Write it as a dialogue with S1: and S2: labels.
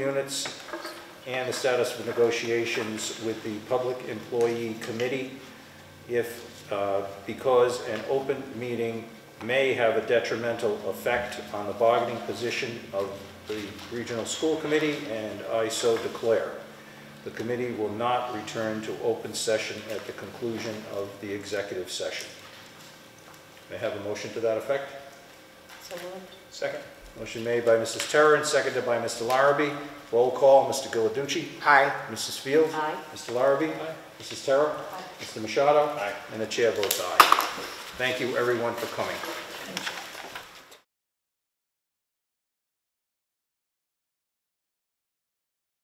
S1: units and the status of negotiations with the Public Employee Committee if, uh, because an open meeting may have a detrimental effect on the bargaining position of the Regional School Committee, and I so declare. The committee will not return to open session at the conclusion of the executive session. May I have a motion to that effect?
S2: So moved.
S1: Second. Motion made by Mrs. Terra and seconded by Mr. Larrabee. Roll call, Mr. Giliducci. Aye. Mrs. Fields.
S2: Aye.
S1: Mr. Larrabee. Aye. Mrs. Terra. Aye. Mr. Machado. Aye. And the chair votes aye. Thank you, everyone, for coming.
S2: Thank you.